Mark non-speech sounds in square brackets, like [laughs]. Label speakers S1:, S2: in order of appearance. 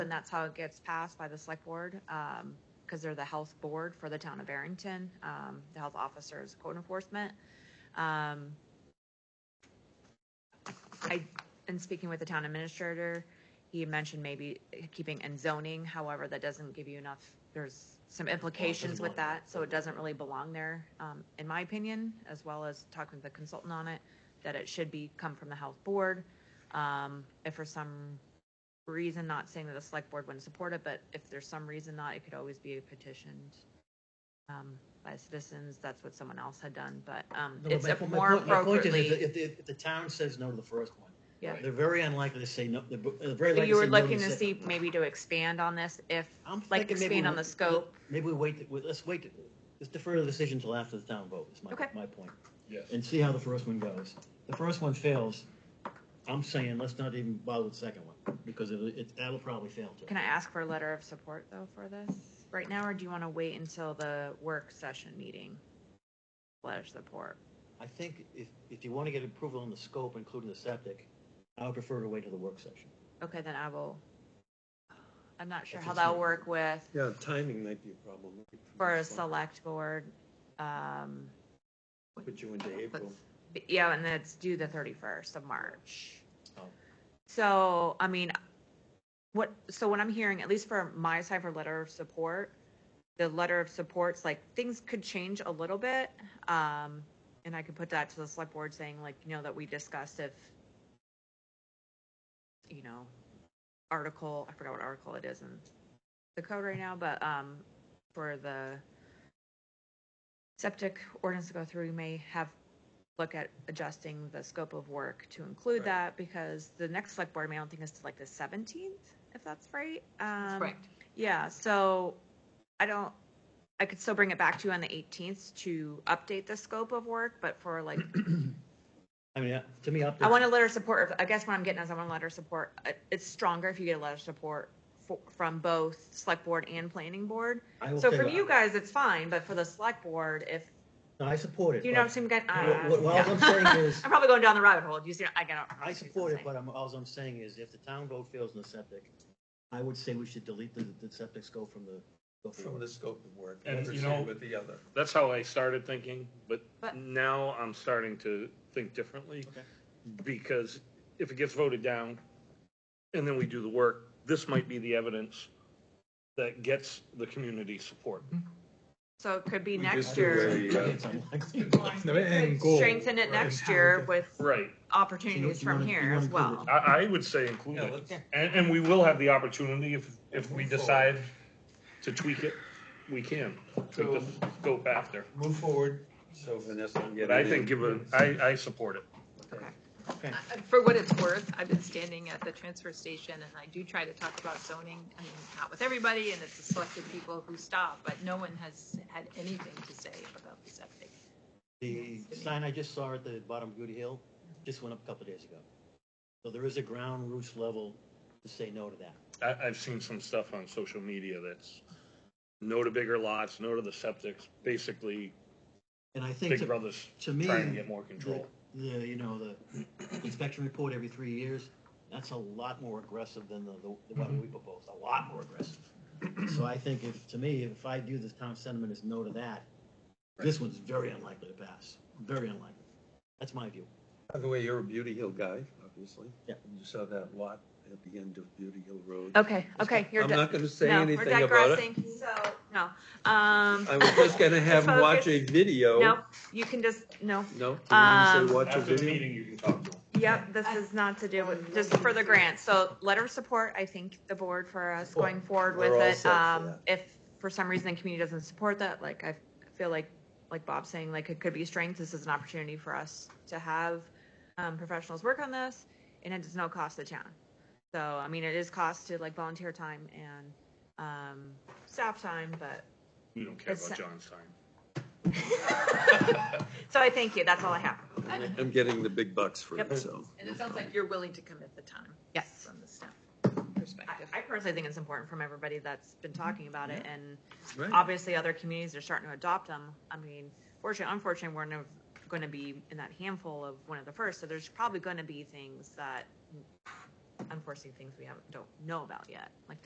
S1: and that's how it gets passed by the select board, um, because they're the health board for the town of Barrington. Um, the health officer is code enforcement. Um, I, in speaking with the town administrator, he mentioned maybe keeping and zoning, however, that doesn't give you enough, there's some implications with that, so it doesn't really belong there, um, in my opinion, as well as talking to the consultant on it, that it should be, come from the health board. Um, if for some reason, not saying that the select board wouldn't support it, but if there's some reason not, it could always be petitioned um, by citizens. That's what someone else had done, but um,
S2: No,
S1: it's
S2: but my- my
S1: more
S2: point- my point is
S1: appropriately.
S2: If, the- if the- if the town says no to the first one,
S1: Yeah.
S2: they're very unlikely to say no, they're b- they're very
S1: So
S2: likely to
S1: you
S2: say
S1: were
S2: no
S1: looking
S2: the
S1: to
S2: second
S1: see
S2: one.
S1: maybe to expand on this if,
S2: I'm
S1: like
S2: thinking maybe
S1: expand
S2: we-
S1: on the scope.
S2: Maybe we wait, to- let's wait, to- let's defer the decision till after the town vote, is my,
S1: Okay.
S2: my point.
S3: Yes.
S2: And see how the first one goes. The first one fails, I'm saying let's not even bother with the second one, because it, it, that'll probably fail too.
S1: Can I ask for a letter of support though for this right now, or do you want to wait until the work session meeting? Letter of support.
S2: I think if, if you want to get approval on the scope, including the septic, I would prefer to wait till the work session.
S1: Okay, then I will. I'm not sure
S2: If
S1: how
S2: it's
S1: that'll
S2: not-
S1: work with
S4: Yeah, timing might be a problem.
S1: for a select board. Um,
S4: Put you into April.
S1: But, Yeah, and that's due the thirty-first of March.
S2: Oh.
S1: So, I mean, what, so what I'm hearing, at least for my side for letter of support, the letter of support's like, things could change a little bit. Um, and I could put that to the select board saying like, you know, that we discussed if, you know, article, I forgot what article it is in the code right now, but, um, for the septic ordinance to go through, we may have look at adjusting the scope of work to include
S2: Right.
S1: that because the next select board, meeting, I don't think is till like the seventeenth, if that's right. Um,
S5: Correct.
S1: Yeah, so I don't, I could still bring it back to you on the eighteenth to update the scope of work, but for like,
S2: I mean, uh, to me, up
S1: I
S2: to
S1: want a letter of support. I guess what I'm getting is I want a letter of support. Uh, It's stronger if you get a letter of support for, from both select board and planning board.
S2: I will
S1: So
S2: say
S1: from
S2: that-
S1: you guys, it's fine, but for the select board, if,
S2: No, I support it.
S1: do you know what
S2: but-
S1: I'm saying? guys?
S2: Wh-
S1: Uh,
S2: wh- What I'm
S1: yeah.
S2: saying is,
S1: [laughs] I'm probably going down the rabbit hole. Do you see? I got.
S2: I support it, but I'm, all I'm saying is if the town vote fails in the septic, I would say we should delete the, the septic scope from the. go
S4: From
S2: forward.
S4: the scope of work.
S3: And,
S4: Never
S3: you
S4: seen
S3: know-
S4: With the other.
S3: That's how I started thinking, but
S1: But-
S3: now I'm starting to think differently.
S2: Okay.
S3: Because if it gets voted down and then we do the work, this might be the evidence that gets the community support.
S1: So it could be
S6: We
S1: next
S6: just do
S1: year.
S6: a, uh,
S2: It's unlikely.
S6: the end goal,
S1: Strengthen it
S6: right?
S1: next year with
S3: Right.
S1: opportunities
S2: You wanna-
S1: from
S2: you
S1: here
S2: wanna
S1: as
S2: include
S1: well.
S2: it.
S3: I, I would say include
S4: Yeah,
S3: it.
S4: let's-
S3: And, and we will have the opportunity if, if we
S6: Move forward.
S3: decide to tweak it, we can.
S6: So-
S3: Go go after.
S6: Move forward, so Vanessa can get
S3: But I
S6: it
S3: think
S6: in.
S3: give a, I, I support it.
S2: Okay.
S5: Uh, For what it's worth, I've been standing at the transfer station and I do try to talk about zoning. I mean, not with everybody and it's the selected people who stop, but no one has had anything to say about the septic.
S2: The sign I just saw at the bottom of Goody Hill just went up a couple days ago. So there is a ground roots level to say no to that.
S3: I, I've seen some stuff on social media that's no to bigger lots, no to the septics, basically
S2: And I think
S3: Big
S2: to,
S3: Brother's
S2: to me,
S3: trying to get more
S2: the,
S3: control.
S2: the, you know, the inspection report every three years, that's a lot more aggressive than the, the one we proposed, a lot more aggressive. So I think if, to me, if I do this town sentiment is no to that, this one's very unlikely to pass, very unlikely. That's my view.
S6: By the way, you're a Beauty Hill guy, obviously.
S2: Yeah.
S6: You saw that lot at the end of Beauty Hill Road.
S1: Okay, Oh, okay, you're
S6: I'm
S1: di-
S6: not gonna say
S1: no,
S6: anything
S1: we're
S6: about it.
S1: digressing, So no, um,
S6: I was just gonna have him watch a
S1: [laughs]
S6: video.
S1: no, you can just no.
S6: No? Did you
S1: Um,
S6: say watch a
S3: After the
S6: video?
S3: meeting, you can talk to them.
S1: Yep, this is not to do with just for the grant. So letter of support, I think the board for us going forward with
S6: We're all
S1: it.
S6: set for
S1: Um,
S6: that.
S1: if for some reason the community doesn't support that, like I feel like, like Bob's saying, like it could be strength. This is an opportunity for us to have um, professionals work on this and it does no cost to town. So, I mean, it is cost to like volunteer time and um, staff time, but,
S3: We don't care
S1: It's-
S3: about John's time.
S1: so I thank you. That's all I have.
S6: I'm getting the big bucks for
S1: Yep.
S6: it, so.
S5: And it sounds like you're willing to commit the time
S1: Yes.
S5: from the staff
S1: I,
S5: perspective.
S1: I personally think it's important from everybody that's been talking about it and
S6: Right.
S1: obviously other communities are starting to adopt them. I mean, fortunately, unfortunately, we're no, going to be in that handful of one of the first. So there's probably going to be things that unforeseen things we haven't, don't know about yet, like